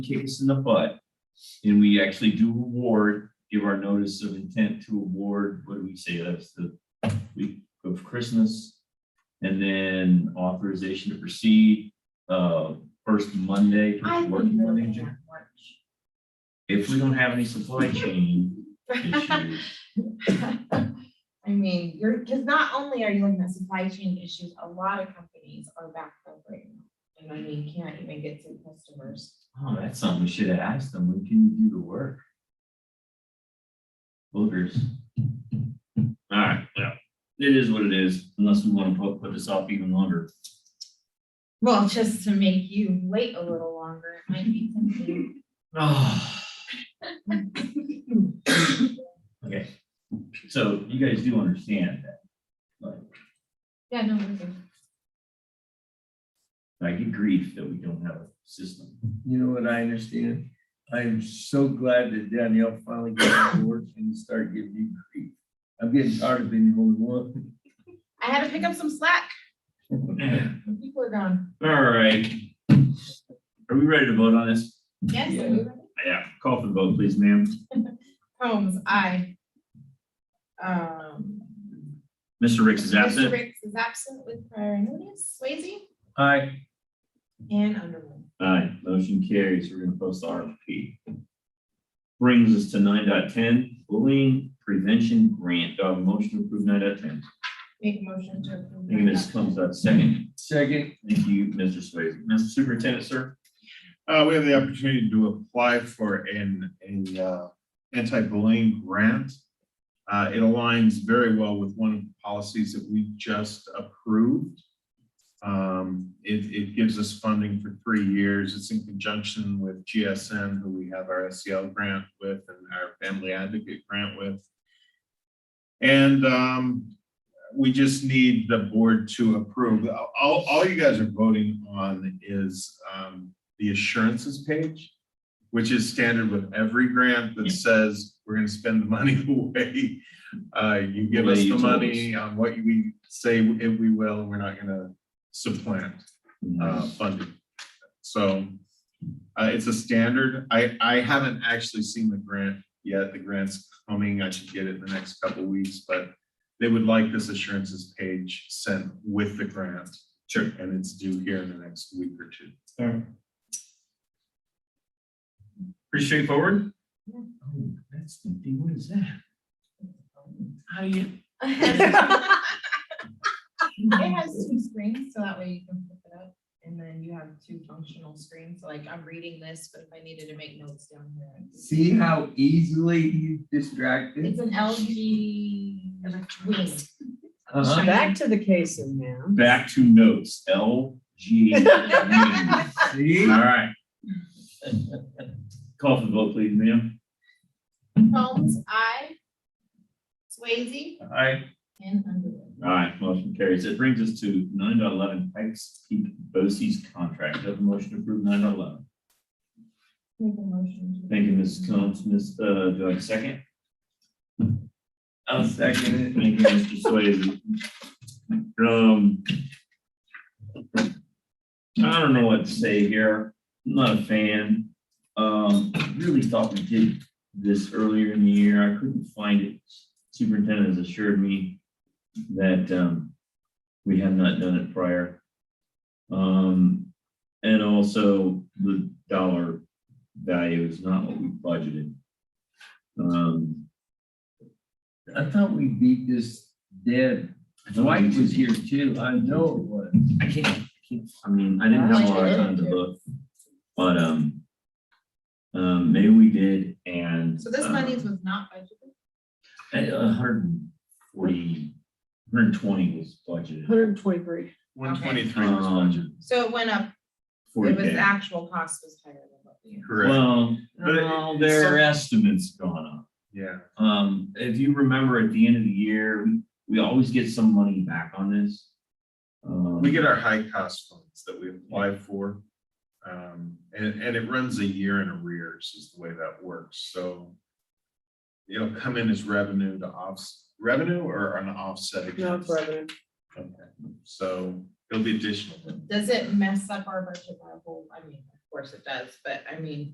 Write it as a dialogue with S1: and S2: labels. S1: kicks in the butt. And we actually do award, give our notice of intent to award, what do we say, that's the week of Christmas. And then authorization to proceed, uh, first Monday,
S2: I
S1: first
S2: would
S1: working
S2: really
S1: Monday. in Jan-
S2: want
S1: If we don't have any supply chain
S2: March.
S1: issues,
S2: I mean, you're, because not only are you looking at supply chain issues, a lot of companies are backed up right now. And I mean, can't even get to customers.
S1: oh, that's something we should have asked them, when can you do the work? Boogers. All right, well, it is what it is, unless we want to put, put this off even longer.
S2: Well, just to make you wait a little longer, it might be something.
S1: Ah. Okay, so you guys do understand that,
S2: Yeah, no, we can-
S1: I get grief that we don't have a system.
S3: You know what I understand? I'm so glad that Danielle finally got to work and start giving you grief. I'm getting tired of being the only one.
S2: I had to pick up some slack. when People are gone.
S1: All right. Are we ready to vote on this?
S2: Yes. are you ready?
S1: Yeah, call for the vote, please, ma'am.
S2: Holmes, I. Um.
S1: Mr. Ricks is
S2: Mr.
S1: absent.
S2: Ricks is absent with prior notice. Swayze
S3: Hi,
S2: and Underwood.
S1: Aye, motion carries. We're gonna post the RFP. Brings us to nine dot ten, bullying prevention grant. Do I have a motion to approve nine dot ten?
S2: Make a motion to approve.
S1: Thank you, Ms. Combs, that's second.
S3: second.
S1: Thank you, Mr. Swayze. Mr. Superintendent, sir?
S4: Uh, we have the opportunity to apply for an, a, uh, anti-bullying grant. Uh, it aligns very well with one of the policies that we just approved. Um, it, it gives us funding for three years. It's in conjunction with GSN, who we have our SEL grant with and our family advocate grant with. And, um, we just need the board to approve. All, all you guys are voting on is, um, the assurances page, which is standard with every grant that says we're gonna spend the money away. Uh, you give us
S1: Way you
S4: the
S1: told
S4: money on what we say if we will, we're not gonna supplant uh, funding. So uh, it's a standard. I, I haven't actually seen the grant yet. The grant's coming. I should get it in the next couple weeks, but they would like this assurances page sent with the grant. Sure. And it's due here in the next week or two.
S1: Pretty straightforward?
S2: Yeah.
S1: Oh, that's the thing, what is that? How do you?
S2: It has two screens, so that way you can flip it up, and then you have two functional screens, so like I'm reading this, but if I needed to make notes down here.
S3: See how easily he's distracted?
S2: It's an LG wing.
S3: Uh-huh.
S5: Back to the case in hand.
S1: Back to notes, L, G. E All
S3: See?
S1: right. Call for the vote, please, ma'am.
S2: Holmes, I. Swayze
S1: Aye.
S2: and Underwood.
S1: All right, motion carries. It brings us to nine dot eleven, Pikes Peak BOCES contract. Do I have a motion to approve nine dot eleven?
S2: Make a motion. to-
S1: Thank you, Mrs. Combs. Ms., uh, do I have a second?
S3: I'll second it.
S1: Thank you, Mr. Swayze. Um. I don't know what to say here. I'm not a fan. Um, really thought we did this earlier in the year. I couldn't find it. Superintendent has assured me that, um, we have not done it prior. Um, and also the dollar value is not what we budgeted. Um.
S3: I thought we beat this dead.
S1: I don't
S3: Dwight
S1: think
S3: was here too. I know it was.
S1: I can't, I can't, I mean, I didn't have a lot of time to look, but, um, um, maybe we did and.
S2: So this
S1: um,
S2: money was not budgeted.
S1: A a hundred and forty, hundred and twenty was budgeted.
S5: Hundred and twenty-three.
S4: One twenty-three was budget.
S1: Um,
S2: So it went up,
S1: forty
S2: it was, the
S1: K.
S2: actual cost was higher than what we.
S4: Correct.
S1: Well,
S4: But it-
S1: well,
S4: it's
S1: their
S4: some-
S1: estimates gone up.
S4: Yeah.
S1: Um, if you remember at the end of the year, we, we always get some money back on this. Um,
S4: We get our high cost funds that we apply for. Um, and, and it runs a year in arrears is the way that works. So it'll come in as revenue to offs, revenue or an offset.
S5: No,
S4: against?
S5: it's revenue.
S4: Okay. So it'll be additional.
S2: Does it mess up our budget level? I mean, of course it does, but I mean,